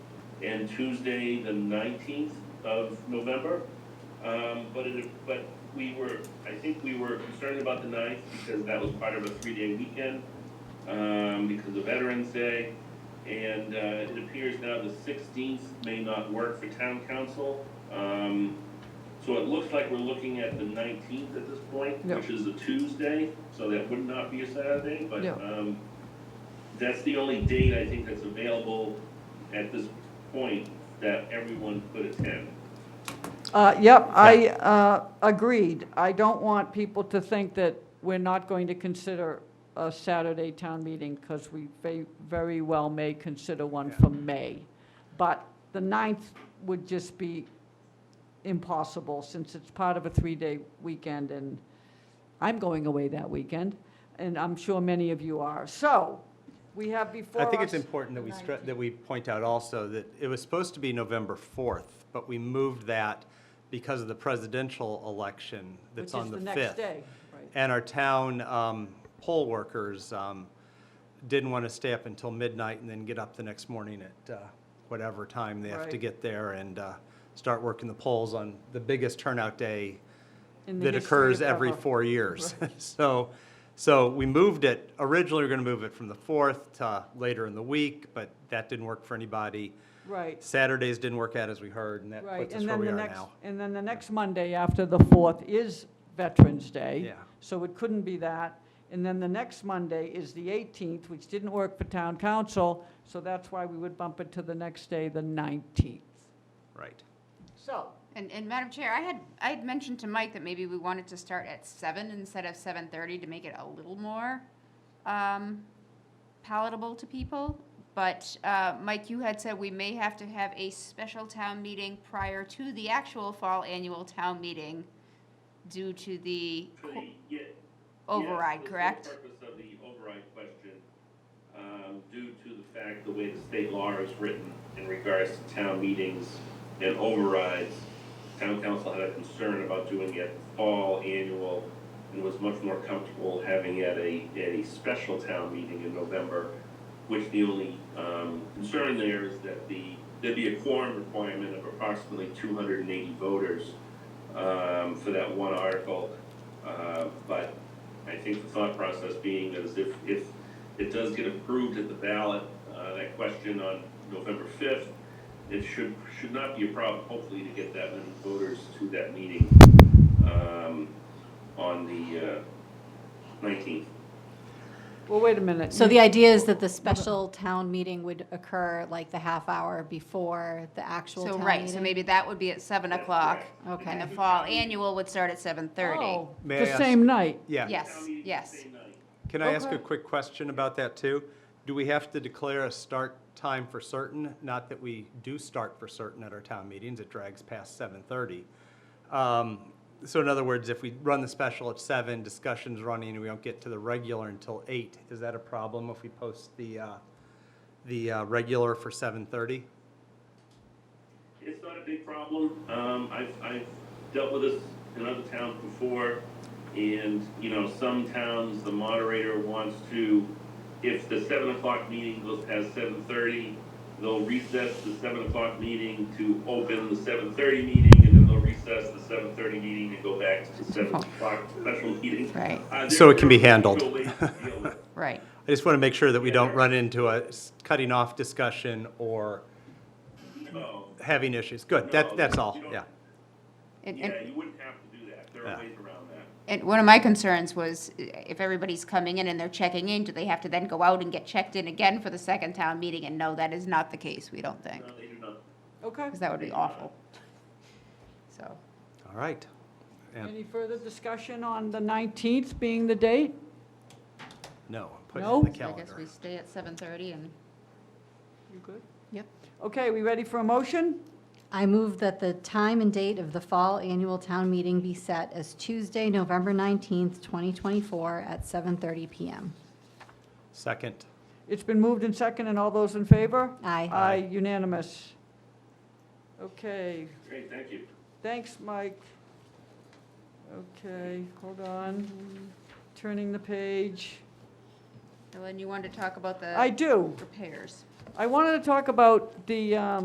and Tuesday, the nineteenth of November. Um, but it, but we were, I think we were concerned about the ninth because that was part of a three-day weekend, um, because of Veterans Day. And, uh, it appears now the sixteenth may not work for town council. Um, so it looks like we're looking at the nineteenth at this point, Yeah. which is a Tuesday, so that would not be a Saturday, but, Yeah. um, that's the only date I think that's available at this point that everyone could attend. Uh, Yep, I uh, agreed. I don't want people to think that we're not going to consider a Saturday town meeting, because we ve- very well may consider one Yeah. for May. But the 9th would just be impossible, since it's part of a three-day weekend, and I'm going away that weekend, and I'm sure many of you are. So, we have before I us... think it's important that we stress, 19th. that we point out also that it was supposed to be November 4th, but we moved that because of the presidential election that's on the 5th. Which is the next day, right. And our town um, poll workers um, didn't want to stay up until midnight and then get up the next morning at uh, whatever time they have to Right. get there and uh, start working the polls on the biggest turnout day in the that history occurs of every ever. four years. So, so we moved it, originally we were going to move it from the 4th to later in the week, but that didn't work for anybody. Right, Saturdays didn't work out as we heard, and that right. puts us And where then we the are next, now. and then the next Monday after the 4th is Veterans Day. Yeah. So it couldn't be that. And then the next Monday is the 18th, which didn't work for town council, so that's why we would bump it to the next day, the 19th. Right. So, And, and Madam Chair, I had, I had mentioned to Mike that maybe we wanted to start at seven instead of seven thirty to make it a little more, um, palatable to people. But, uh, Mike, you had said we may have to have a special town meeting prior to the actual fall annual town meeting due to the co- override, correct? Yes, that's the purpose of the override question, um, due to the fact, the way the state law is written in regards to town meetings and overrides, town council had a concern about doing it fall annual and was much more comfortable having at a, at a special town meeting in November, which the only, um, concern there is that the, there'd be a quorum requirement of approximately two hundred and eighty voters, um, for that one article. Uh, but I think the thought process being is if, if it does get approved at the ballot, uh, that question on November fifth, it should, should not be a problem, hopefully, to get that many voters to that meeting, um, on the uh, nineteenth. well, wait a minute. So You- the idea is that the special town meeting would occur like the half hour before the actual So, town right, so meeting? maybe that would be at seven o'clock. Okay. And the fall annual would start at seven thirty. Oh, May I The ask- same night. Yeah. Yes, yes. Can I ask Okay. a quick question about that, too? Do we have to declare a start time for certain? Not that we do start for certain at our town meetings, it drags past 7:30. Um, So in other words, if we run the special at 7, discussion's running, and we don't get to the regular until 8, is that a problem if we post the, uh, the uh, regular for 7:30? It's not a big problem. Um, I've, I've dealt with this in other towns before, and, you know, some towns, the moderator wants to, if the seven o'clock meeting goes past seven thirty, they'll recess the seven o'clock meeting to open the seven thirty meeting, and then they'll recess the seven thirty meeting and go back to the seven o'clock special meeting. Right. Uh, So it can be there are handled. ways to deal with it. Right. I just want to make sure that we don't run into a s- cutting off discussion or No, having issues. Good, that, that's all, yeah. And- and- yeah, you wouldn't have to do that. There are Yeah. ways around that. And one of my concerns was eh, if everybody's coming in and they're checking in, do they have to then go out and get checked in again for the second town meeting? And no, that is not the case, we don't think, No, they do not. Okay. because that would be awful. So, All right. And- Any further discussion on the 19th being the date? No, I'm putting it No? in the I I guess calendar. we stay at seven thirty and. You good? Yep. Okay, we ready for a motion? I move that the time and date of the fall annual town meeting be set as Tuesday, November 19th, 2024, at 7:30 PM. Second. It's been moved and second, and all those in favor? Aye. Aye, unanimous. Okay, Great, thank you. thanks, Mike. Okay, hold on, turning the page. Ellen, you wanted to talk about I the do, repairs? I wanted to talk about the, um,